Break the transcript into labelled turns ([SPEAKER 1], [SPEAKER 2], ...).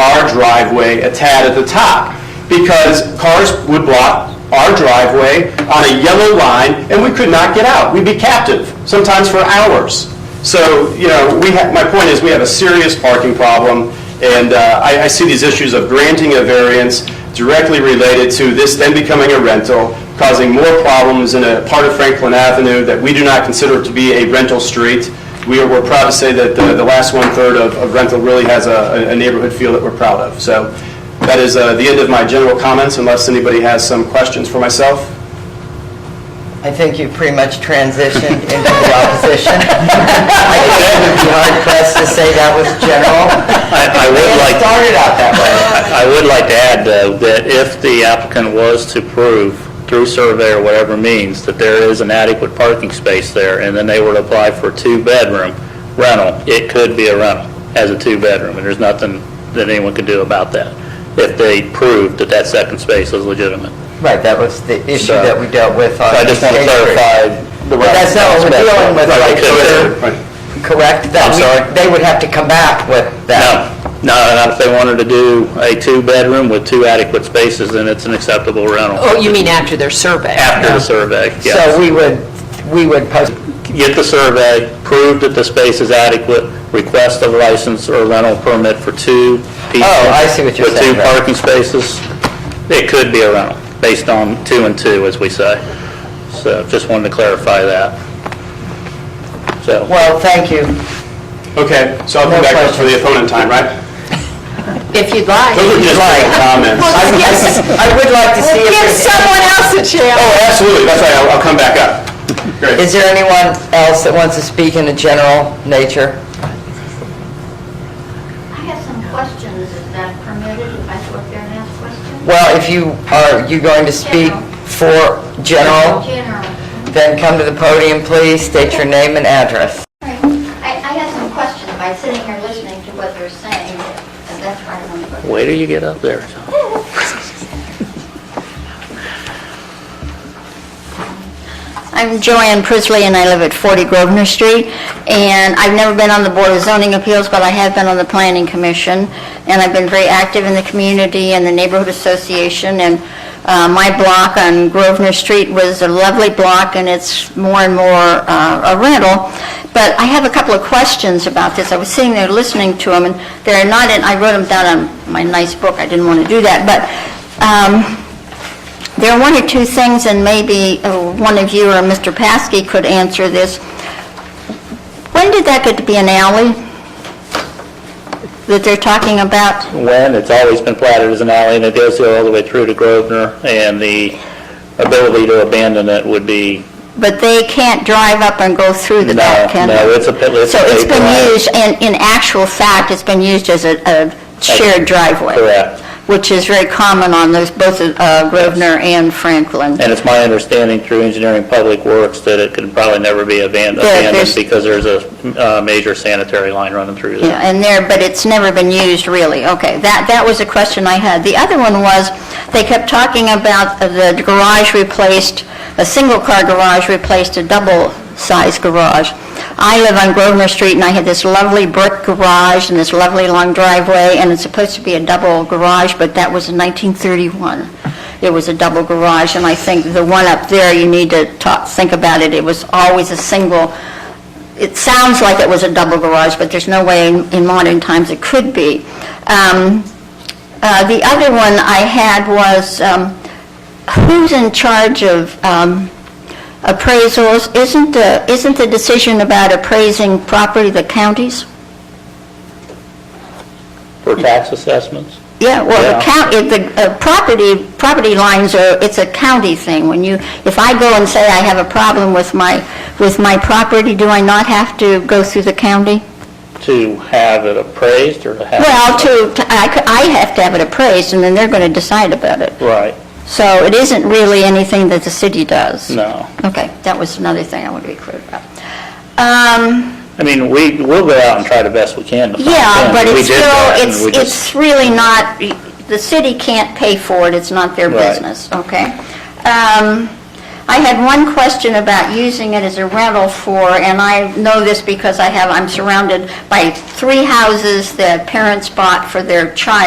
[SPEAKER 1] our driveway a tad at the top, because cars would block our driveway on a yellow line, and we could not get out. We'd be captive, sometimes for hours. So, you know, we ha my point is, we have a serious parking problem, and uh, I, I see these issues of granting a variance directly related to this then becoming a rental, causing more problems in a part of Franklin Avenue that we do not consider to be a rental street. We are, we're proud to say that the, the last one-third of, of rental really has a, a neighborhood feel that we're proud of. So that is uh, the end of my general comments, unless anybody has some questions for myself.
[SPEAKER 2] I think you pretty much transitioned into the opposition. I think it would be hard pressed to say that was general.
[SPEAKER 3] I I would
[SPEAKER 2] It
[SPEAKER 3] like,
[SPEAKER 2] started out that way.
[SPEAKER 3] I would like to add, though, that if the applicant was to prove through survey or whatever means that there is an adequate parking space there, and then they were to apply for a two-bedroom rental, it could be a rental as a two-bedroom, and there's nothing that anyone could do about that, if they proved that that second space was legitimate.
[SPEAKER 2] Right, that was the issue
[SPEAKER 3] So-
[SPEAKER 2] that we dealt with on
[SPEAKER 3] So I just want to
[SPEAKER 2] State Street.
[SPEAKER 3] clarify the...
[SPEAKER 2] But that's not what we're dealing with
[SPEAKER 3] Right,
[SPEAKER 2] right
[SPEAKER 3] so
[SPEAKER 2] here.
[SPEAKER 3] they're-
[SPEAKER 2] Correct? That
[SPEAKER 3] I'm
[SPEAKER 2] we-
[SPEAKER 3] sorry?
[SPEAKER 2] They would have to come back with that.
[SPEAKER 3] No, no, not if they wanted to do a two-bedroom with two adequate spaces, then it's an acceptable rental.
[SPEAKER 4] Oh, you mean after their survey?
[SPEAKER 3] After the survey,
[SPEAKER 2] So
[SPEAKER 3] yes.
[SPEAKER 2] we would, we would post,
[SPEAKER 3] Get the survey, prove that the space is adequate, request a license or rental permit for two people.
[SPEAKER 2] Oh, I see what you're saying,
[SPEAKER 3] With two
[SPEAKER 2] right.
[SPEAKER 3] parking spaces. It could be a rental, based on two and two, as we say. So just wanted to clarify that. So,
[SPEAKER 2] well, thank you.
[SPEAKER 1] Okay, so I'll come
[SPEAKER 2] No
[SPEAKER 1] back up for the
[SPEAKER 2] questions.
[SPEAKER 1] opponent time, right?
[SPEAKER 4] If you'd like.
[SPEAKER 1] Those are just
[SPEAKER 2] Right.
[SPEAKER 1] comments.
[SPEAKER 2] I would-
[SPEAKER 4] Yes.
[SPEAKER 2] I would like to see if
[SPEAKER 4] Give
[SPEAKER 2] there's...
[SPEAKER 4] someone else a chance.
[SPEAKER 1] Oh, absolutely, that's right, I'll, I'll come back up. Great.
[SPEAKER 2] Is there anyone else that wants to speak in a general nature?
[SPEAKER 5] I have some questions. Is that permitted if I go up there and ask questions?
[SPEAKER 2] Well, if you, are you going to speak for general,
[SPEAKER 5] General.
[SPEAKER 2] then come to the podium, please, state your name and address.
[SPEAKER 5] Right. I, I have some questions by sitting here listening to what they're saying, and that's why I'm going to...
[SPEAKER 3] wait till you get up there, John.
[SPEAKER 5] I'm Joanne Prisley, and I live at 40 Grosvenor Street, and I've never been on the Board of Zoning Appeals, but I have been on the Planning Commission, and I've been very active in the community and the Neighborhood Association, and uh, my block on Grosvenor Street was a lovely block, and it's more and more uh, a rental, but I have a couple of questions about this. I was sitting there listening to them, and they're not, in. I wrote them down on my nice book, I didn't want to do that, but um, there are one or two things, and maybe uh, one of you or Mr. Paskey could answer this. When did that get to be an alley that they're talking about?
[SPEAKER 3] when, it's always been platted as an alley, and it goes all the way through to Grosvenor, and the ability to abandon it would be,
[SPEAKER 5] But they can't drive up and go through the
[SPEAKER 3] No,
[SPEAKER 5] back, can they?
[SPEAKER 3] no, it's a pit- it's
[SPEAKER 5] So
[SPEAKER 3] a
[SPEAKER 5] it's been
[SPEAKER 3] paved drive.
[SPEAKER 5] used, and in actual fact, it's been used as a- a shared driveway.
[SPEAKER 3] Correct.
[SPEAKER 5] Which is very common on those, both uh, Grosvenor and Franklin.
[SPEAKER 3] and it's my understanding through Engineering Public Works that it could probably never be aban-
[SPEAKER 5] There-
[SPEAKER 3] abandoned
[SPEAKER 5] there's-
[SPEAKER 3] because there's a uh, major sanitary line running through there.
[SPEAKER 5] Yeah, and there, but it's never been used, really. Okay, that, that was a question I had. The other one was, they kept talking about the garage replaced, a single-car garage replaced a double-size garage. I live on Grosvenor Street, and I had this lovely brick garage and this lovely long driveway, and it's supposed to be a double garage, but that was in 1931. It was a double garage, and I think the one up there, you need to talk, think about it. It was always a single it sounds like it was a double garage, but there's no way in in modern times it could be. Um, uh, The other one I had was, um, who's in charge of um, appraisals? Isn't the, isn't the decision about appraising property the counties?
[SPEAKER 3] For tax assessments?
[SPEAKER 5] Yeah, well, the
[SPEAKER 3] Yeah.
[SPEAKER 5] county, the uh, property, property lines are, it's a county thing. When you, if I go and say I have a problem with my, with my property, do I not have to go through the county?
[SPEAKER 3] To have it appraised or to have? it-
[SPEAKER 5] Well, to, to- I c- I have to have it appraised, and then they're going to decide about it.
[SPEAKER 3] Right,
[SPEAKER 5] So it isn't really anything that the city does?
[SPEAKER 3] no.
[SPEAKER 5] Okay, that was another thing I wanted to be clear about. Um,
[SPEAKER 3] I mean, we, we'll go out and try the best we can to find
[SPEAKER 5] Yeah,
[SPEAKER 3] them.
[SPEAKER 5] but
[SPEAKER 3] We
[SPEAKER 5] it's
[SPEAKER 3] did that, and
[SPEAKER 5] still,
[SPEAKER 3] we
[SPEAKER 5] it's
[SPEAKER 3] just-
[SPEAKER 5] it's really not, the city can't pay for it, it's not their
[SPEAKER 3] Right.
[SPEAKER 5] business, okay? Um, I had one question about using it as a rental for, and I know this because I have, I'm surrounded by three houses that parents bought for their child.